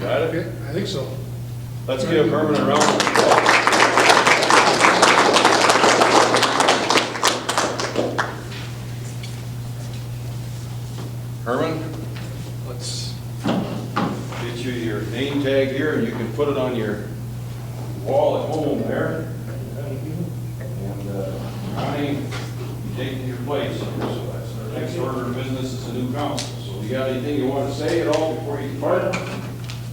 Got it? Okay, I think so. Let's give Herman a round of applause. Herman, let's get you your name tag here, and you can put it on your wall at home there. And uh, Ronnie, you take your place. So that's our Next order of business is the new council. So you got anything you want to say at all before you depart? I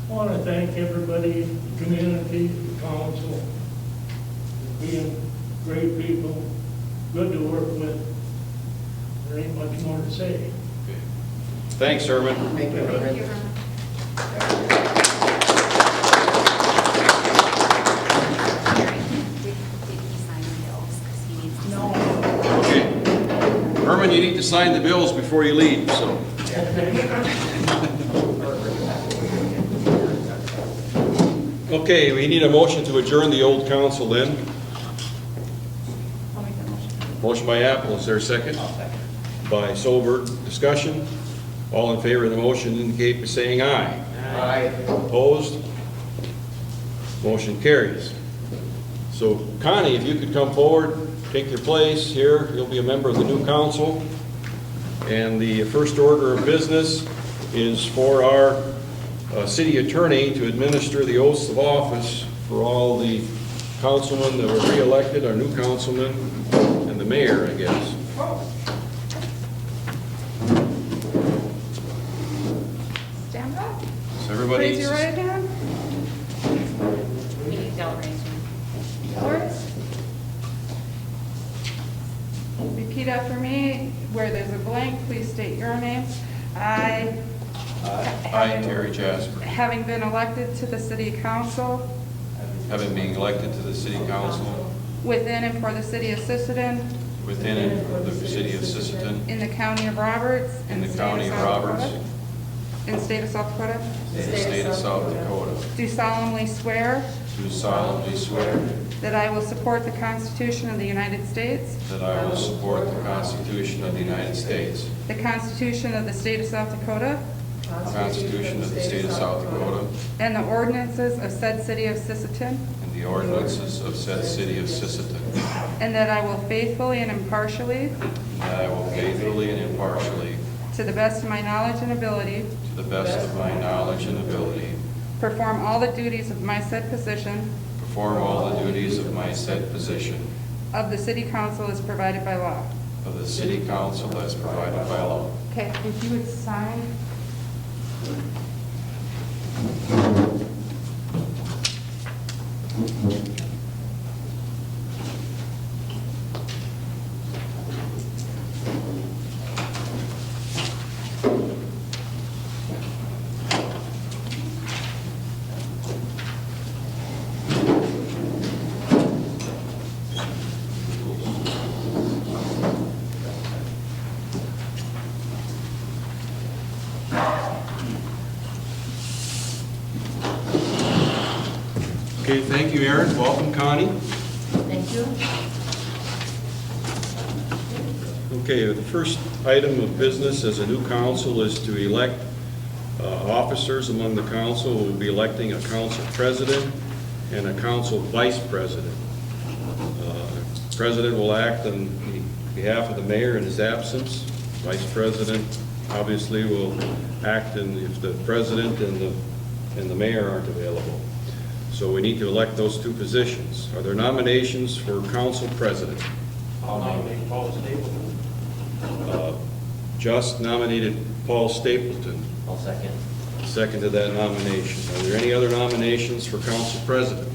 want to thank everybody, the community, the council, for being great people, good to work with. There ain't much more to say. Thanks, Herman. Thank you, Herman. Gary, did, did he sign the bills? Because he needs to. No. Okay. Herman, you need to sign the bills before you leave, so. Okay, we need a motion to adjourn the old council then. I'll make that motion. Motion by Apple, is there a 2nd By Solberg, discussion. All in favor of the motion indicate by saying aye. Aye. Opposed? Motion carries. So Connie, if you could come forward, take your place here, you'll be a member of the new council. And the first order of business is for our uh, city attorney to administer the oaths of office for all the councilmen that were reelected, our new councilmen, and the mayor, I guess. Stand up. So everybody. hand. You don't raise your. Lawrence? Repeat after me. Where there's a blank, please state your name. I, I, Terry Jasper, having been elected to the city council having been elected to the city council within and for the city of Sisseton within and for the city of Sisseton in the county of Roberts. in and the state county of South Roberts, Dakota- In state of South Dakota. in the state of South Dakota, Do solemnly swear do solemnly swear that I will support the Constitution of the United States, that I will support the Constitution of the United States, the Constitution of the state of South Dakota, the Constitution of the state of South Dakota, and the ordinances of said city of Sisseton, and the ordinances of said city of Sisseton, And that I will faithfully and impartially, and that I will faithfully and impartially, to the best of my knowledge and ability, to the best of my knowledge and ability, perform all the duties of my said position perform all the duties of my said position of the city council as provided by law. of the city council as provided by law. Okay, if you would sign. Okay, thank you, Aaron. Welcome, Connie. Thank you. Okay, the first item of business as a new council is to elect uh, officers among the council. We'll be electing a council president and a council vice president. Uh, President will act on behalf of the mayor in his absence. Vice president obviously will act in, if the president and the, and the mayor aren't available. So we need to elect those two positions. Are there nominations for council president? I'll nominate Paul Stapleton. Uh, Just nominated Paul Stapleton, I'll second. second to that nomination. Are there any other nominations for council president?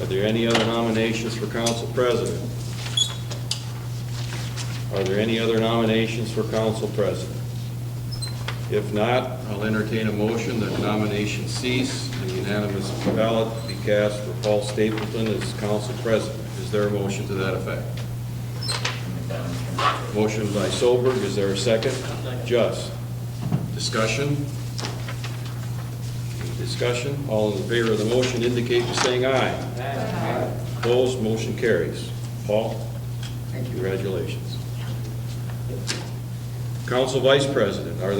Are there any other nominations for council president? Are there any other nominations for council president? If not, I'll entertain a motion that nominations cease, and unanimous ballot be cast for Paul Stapleton as council president. Is there a motion to that effect? Motion by Solberg, is there a second? Just. Discussion? Any Discussion, all in favor of the motion indicate by saying aye. Opposed, motion carries. Paul? Thank you. Congratulations. Council Vice President, are there